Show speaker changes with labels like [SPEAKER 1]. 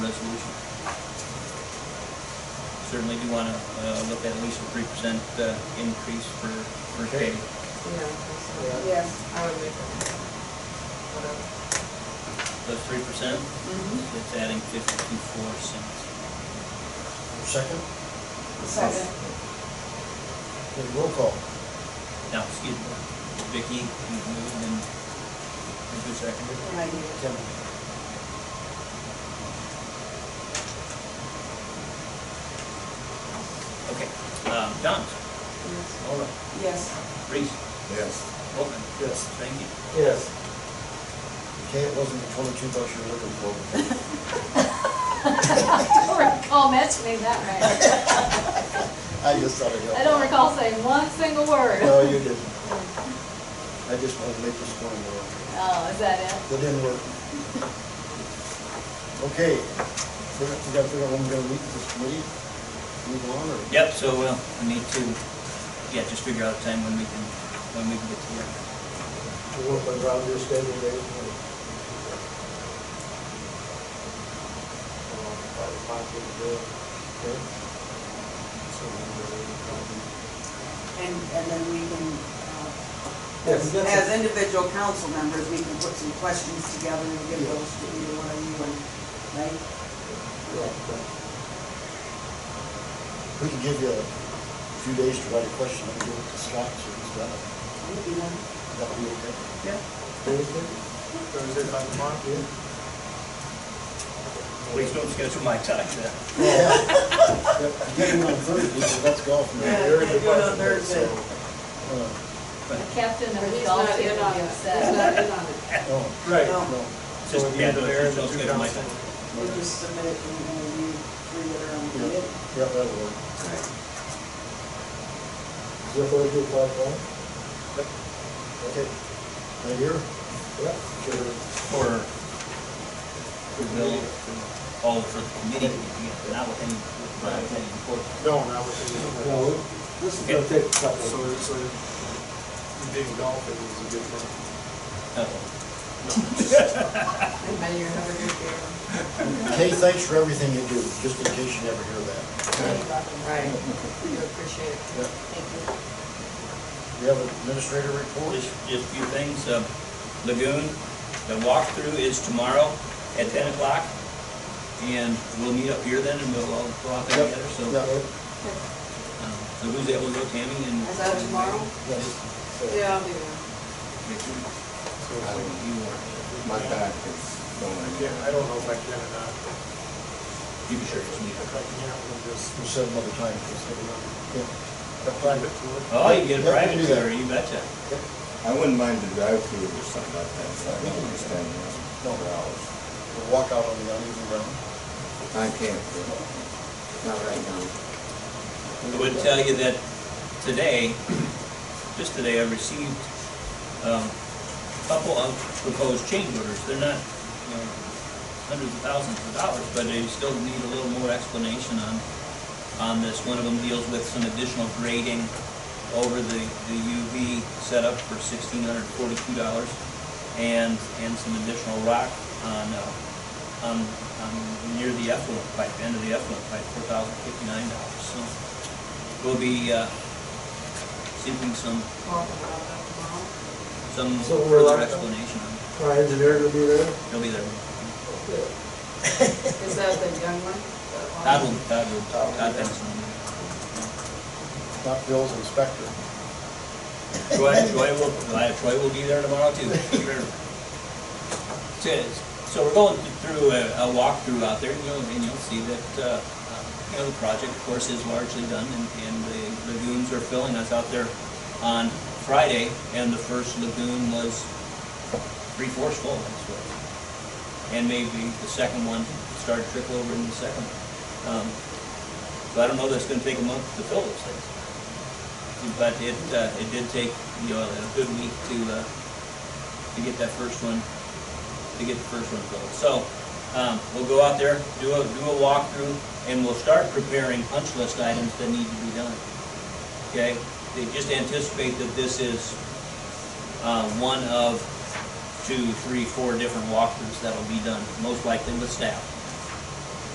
[SPEAKER 1] certainly do want to look at at least a three percent uh, increase for first
[SPEAKER 2] Okay.
[SPEAKER 1] pay.
[SPEAKER 3] Yeah.
[SPEAKER 4] Yes.
[SPEAKER 3] I would make that.
[SPEAKER 1] The three percent,
[SPEAKER 4] Mm-hmm.
[SPEAKER 1] it's adding fifty-four cents.
[SPEAKER 2] Second?
[SPEAKER 4] Second.
[SPEAKER 2] Okay, roll call.
[SPEAKER 1] Now, excuse me, Vicky, you moved and and who seconded?
[SPEAKER 4] I need it.
[SPEAKER 2] Kevin.
[SPEAKER 1] Okay, um, Johns, Mulder,
[SPEAKER 4] Yes.
[SPEAKER 1] Reese,
[SPEAKER 5] Yes.
[SPEAKER 1] Volkman,
[SPEAKER 2] Yes.
[SPEAKER 1] thank you.
[SPEAKER 2] Yes. Okay, it wasn't the twenty-two bucks you were looking for. but-
[SPEAKER 6] I don't recall mentioning Oh, that,
[SPEAKER 2] I just thought I'd help.
[SPEAKER 6] right? I don't recall saying one single word.
[SPEAKER 2] No, you didn't. I just wanted to make this point work.
[SPEAKER 6] Oh, is that it?
[SPEAKER 2] That didn't work. Okay, we got, we got to figure out when we're gonna meet this committee, move on, or?
[SPEAKER 1] Yep, so, uh, we need to, yeah, just figure out a time when we can, when we can get to work.
[SPEAKER 2] We'll work around your schedule, Dave.
[SPEAKER 7] uh,
[SPEAKER 2] Five o'clock in the day. Okay. So, we're
[SPEAKER 4] And, and then we can, uh,
[SPEAKER 2] Yes,
[SPEAKER 4] as,
[SPEAKER 2] that's
[SPEAKER 4] as individual council members, we can put some questions together and give
[SPEAKER 2] Yeah.
[SPEAKER 4] those to either one of you and, right?
[SPEAKER 2] gonna- We can give you a few days to write a question, and give it to Scott, so he's got it.
[SPEAKER 4] Maybe one.
[SPEAKER 2] That would be okay.
[SPEAKER 4] Yeah.
[SPEAKER 2] Thursday?
[SPEAKER 5] Thursday, five o'clock?
[SPEAKER 1] Please don't schedule my time then.
[SPEAKER 2] Yeah. Yep, Get him on Thursday, so let's go from
[SPEAKER 4] Yeah,
[SPEAKER 2] there.
[SPEAKER 4] they do it on
[SPEAKER 2] Uh,
[SPEAKER 4] Thursday.
[SPEAKER 6] The captain
[SPEAKER 3] But
[SPEAKER 6] of the
[SPEAKER 3] he's
[SPEAKER 6] golf
[SPEAKER 3] not
[SPEAKER 6] team
[SPEAKER 3] in on
[SPEAKER 6] would be
[SPEAKER 3] it. He's
[SPEAKER 6] upset.
[SPEAKER 3] not in on it.
[SPEAKER 2] No,
[SPEAKER 7] Right.
[SPEAKER 4] No,
[SPEAKER 2] no.
[SPEAKER 7] So
[SPEAKER 1] Just,
[SPEAKER 7] we
[SPEAKER 1] yeah,
[SPEAKER 7] need the mayor
[SPEAKER 1] don't
[SPEAKER 7] and the
[SPEAKER 1] don't
[SPEAKER 7] two
[SPEAKER 1] schedule my
[SPEAKER 7] council.
[SPEAKER 1] time.
[SPEAKER 4] we just submit it and and you three that are on
[SPEAKER 2] Yeah,
[SPEAKER 4] it.
[SPEAKER 2] yeah, that'll work. Is that what I do, five one? Okay. Right here? Yeah. Sure.
[SPEAKER 1] For, for Bill, for all, for the committee, yeah, not with any, not with any report.
[SPEAKER 7] No, not with the.
[SPEAKER 2] No, this is gonna take a
[SPEAKER 7] So,
[SPEAKER 2] couple.
[SPEAKER 7] so, big golf, it was a good thing.
[SPEAKER 1] Uh,
[SPEAKER 3] Anybody have a good year?
[SPEAKER 2] Kay, thanks for everything you do, just in case you never hear that.
[SPEAKER 3] Right. You appreciate it.
[SPEAKER 2] Yeah.
[SPEAKER 3] Thank you.
[SPEAKER 2] You have an administrator report?
[SPEAKER 1] Just, just a few things, uh, Lagoon, the walkthrough is tomorrow at ten o'clock. And we'll meet up here then and we'll all go out there
[SPEAKER 2] Yep,
[SPEAKER 1] together, so,
[SPEAKER 2] Yeah.
[SPEAKER 1] um, so who's able to go, Tammy and?
[SPEAKER 3] Is that tomorrow?
[SPEAKER 2] Yeah.
[SPEAKER 3] Yeah, I'll do that.
[SPEAKER 1] Victor,
[SPEAKER 7] So,
[SPEAKER 1] you are,
[SPEAKER 5] My back is
[SPEAKER 7] I
[SPEAKER 5] going.
[SPEAKER 7] can't, I don't know if I can or not.
[SPEAKER 1] you can share this meeting.
[SPEAKER 7] If I can, I'm just.
[SPEAKER 2] We said another time, just so we don't- yeah. Apply
[SPEAKER 7] Private
[SPEAKER 2] it.
[SPEAKER 7] tour.
[SPEAKER 1] Oh, you get a
[SPEAKER 2] Yeah, we can
[SPEAKER 1] private
[SPEAKER 2] do that.
[SPEAKER 1] tour, you betcha.
[SPEAKER 5] I wouldn't mind the drive-through or something like that, so I don't understand
[SPEAKER 2] No.
[SPEAKER 5] that for hours.
[SPEAKER 2] We'll walk out on the uneven ground.
[SPEAKER 5] I can't, not right now.
[SPEAKER 1] I would tell you that today, just today, I received um, a couple of proposed change orders. They're not, you know, hundreds of thousands of dollars, but they still need a little more explanation on, on this. One of them deals with some additional grading over the, the UV setup for sixteen hundred forty-two dollars and, and some additional rock on, uh, on, on near the effluent pipe, end of the effluent pipe, four thousand fifty-nine dollars. So we'll be, uh, seeking some,
[SPEAKER 3] Talk about that tomorrow.
[SPEAKER 1] some
[SPEAKER 2] So we're
[SPEAKER 1] further
[SPEAKER 2] like-
[SPEAKER 1] explanation on it.
[SPEAKER 2] Our engineer will be there?
[SPEAKER 1] He'll be there.
[SPEAKER 3] Is that the young one?
[SPEAKER 1] Todd will, Todd will,
[SPEAKER 2] Todd will be
[SPEAKER 1] Todd
[SPEAKER 2] there.
[SPEAKER 1] Benson.
[SPEAKER 2] Not Bill's inspector.
[SPEAKER 1] Troy, Troy will, uh, Troy will be there tomorrow too. So- So we're going through a, a walkthrough out there, and you'll, and you'll see that, uh, you know, the project, of course, is largely done, and, and the lagoons are filling. I was out there on Friday, and the first lagoon was three-fourths full, that's what. And maybe the second one started to trickle over in the second. Um, So I don't know that it's gonna take a month to fill those things. But it, uh, it did take, you know, a good week to, uh, to get that first one, to get the first one filled. So, um, we'll go out there, do a, do a walkthrough, and we'll start preparing punch list items that need to be done. Okay? They just anticipate that this is, uh, one of two, three, four different walkthroughs that'll be done, most likely with staff.